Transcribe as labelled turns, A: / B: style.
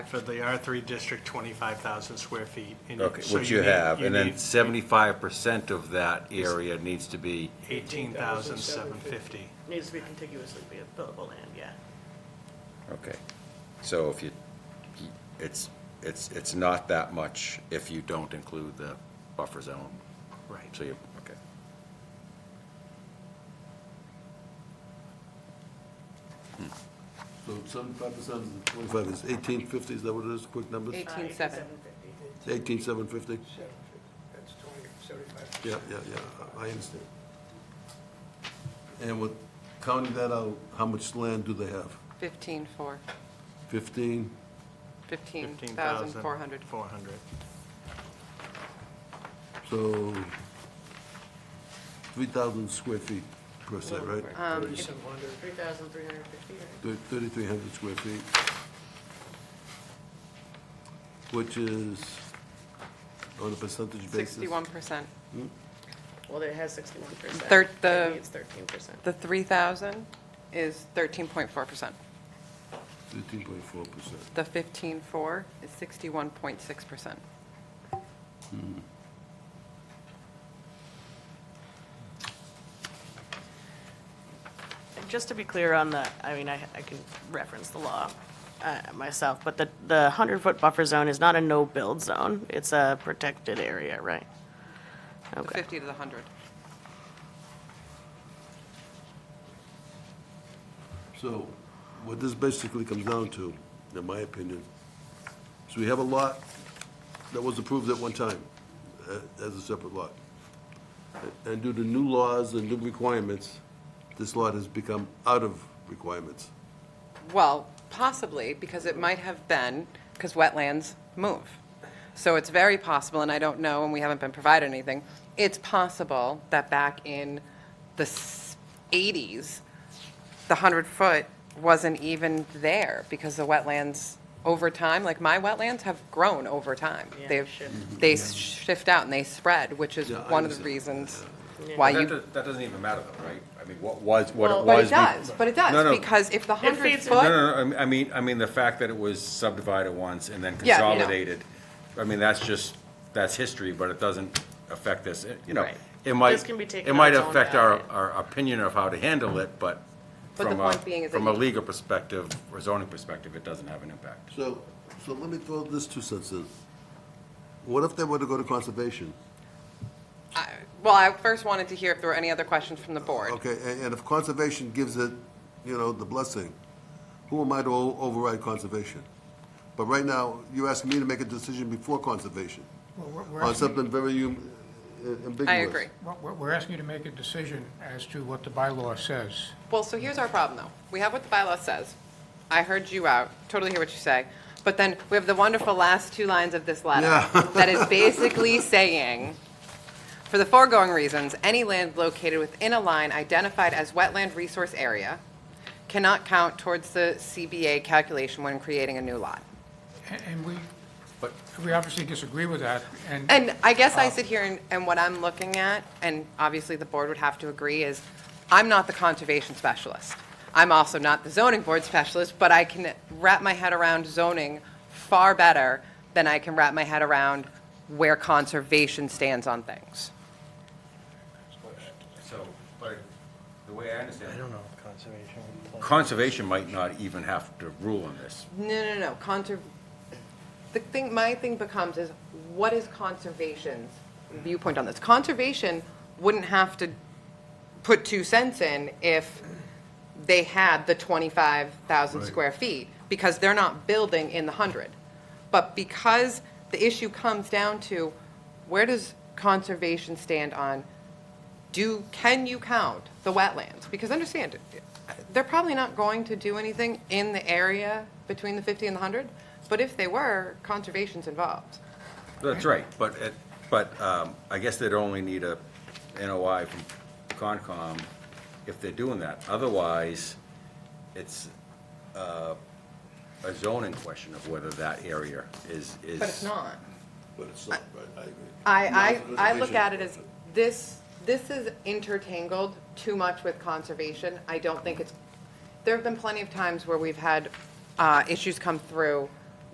A: For the R3 district, 25,000 square feet. and you-
B: Okay,
A: so
B: which you
A: need-
B: have,
A: you
B: and then
A: need
B: seventy-five percent of that area needs to be,
A: 18,750.
C: Needs to be contiguously be buildable land, yeah.
B: okay. So if you, it's, it's, it's not that much if you don't include the buffer zone.
A: Right.
B: So you, okay.
D: So seventy-five percent of the twenty-five is eighteen fifty, is that what it is, quick numbers?
C: Uh,
E: 18.7.
C: 18,750.
D: Eighteen seven fifty?
F: That's 20, 75.
D: Yeah, yeah, yeah, I I understand. And with counting that out, how much land do they have?
E: 15 for,
D: Fifteen?
E: 15,400.
A: 400.
D: So, three thousand square feet per se, right?
E: Um, if-
F: 3,700.
C: 3,350, right?
D: Thirty-three hundred square feet. Which is, on a percentage basis?
E: 61%.
C: Well, it has 61%.
E: Thir- the-
C: Maybe it's 13%.
E: The 3,000 is 13.4%.
D: Thirteen point four percent.
E: The 15.4 is 61.6%.
C: And Just to be clear on the, I mean, I, I can reference the law uh, myself, but the, the 100-foot buffer zone is not a no-build zone. It's a protected area, right?
E: The
C: Okay.
E: 50 to the 100.
D: So what this basically comes down to, in my opinion, is we have a lot that was approved at one time uh, as a separate lot. And due to new laws and new requirements, this lot has become out of requirements.
E: Well, possibly, because it might have been, because wetlands move. So it's very possible, and I don't know, and we haven't been provided anything, it's possible that back in the s- 80s, the 100-foot wasn't even there, because the wetlands over time, like my wetlands have grown over time.
C: Yeah,
E: They've,
C: shift.
E: they shift out and they spread, which is
D: Yeah, I
E: one of the
D: understand.
E: reasons
C: Yeah.
E: why
B: That
E: you
B: does- that doesn't even matter though, right? I mean, what was, what it was.
C: Well-
E: But it
B: be-
E: does, but it
B: No,
E: does,
B: no.
E: because if the
C: It
E: hundred
C: feeds
E: foot.
B: No, no, no, I mean- I mean, I mean, the fact that it was subdivided once and then
E: Yeah, no.
B: consolidated, I mean, that's just, that's history, but it doesn't affect this, It- you know.
C: Right.
B: It might,
C: This can be taken
B: it
C: on
B: might
C: its own
B: affect our,
C: ballot.
B: our opinion of how to handle it, but
E: But the
B: from
E: point being
B: a,
E: is that
B: from a
E: you-
B: legal perspective, or zoning perspective, it doesn't have an impact.
D: So, so let me throw this two cents in. What if they were to go to conservation?
E: I- Well, I first wanted to hear if there were any other questions from the board.
D: Okay, a- and if conservation gives it, you know, the blessing, who am I to o- override conservation? But right now, you're asking me to make a decision before conservation
F: Well, we're- we're
D: on
F: asking-
D: something very um, ambiguous.
E: I agree.
F: We're we're- we're asking you to make a decision as to what the bylaw says.
E: Well, so here's our problem, though. We have what the bylaw says. I heard you out, totally hear what you say. But then we have the wonderful last two lines of this letter
D: Yeah.
E: that is basically saying, for the foregoing reasons, any land located within a line identified as wetland resource area cannot count towards the CBA calculation when creating a new lot.
F: A- And we, we obviously disagree with that, and
E: And I guess I sit here and, and what I'm looking at, and obviously the board would have to agree, is I'm not the conservation specialist. I'm also not the zoning board specialist, but I can wrap my head around zoning far better than I can wrap my head around where conservation stands on things.
B: So, but the way I understand it,
A: know if conservation would play.
B: conservation might not even have to rule on this.
E: No, no, no, conser, the thing, my thing becomes is, what is conservation's viewpoint on this? Conservation wouldn't have to put two cents in if they had the twenty-five thousand
D: Right.
E: square feet, because they're not building in the hundred. But because the issue comes down to, where does conservation stand on, do, can you count the wetlands? Because understand, they're probably not going to do anything in the area between the fifty and the hundred, but if they were, conservation's involved.
B: That's right, but, it- but um, I guess they'd only need a NOI from Concom if they're doing that. Otherwise, it's uh, a zoning question of whether that area is, is.
E: But it's not.
D: But it's not, right, I agree.
E: I,
D: Not
E: I, I
D: conservation.
E: look at it as, this, this is intertangled too much with conservation. I don't think it's, there have been plenty of times where we've had uh, issues come through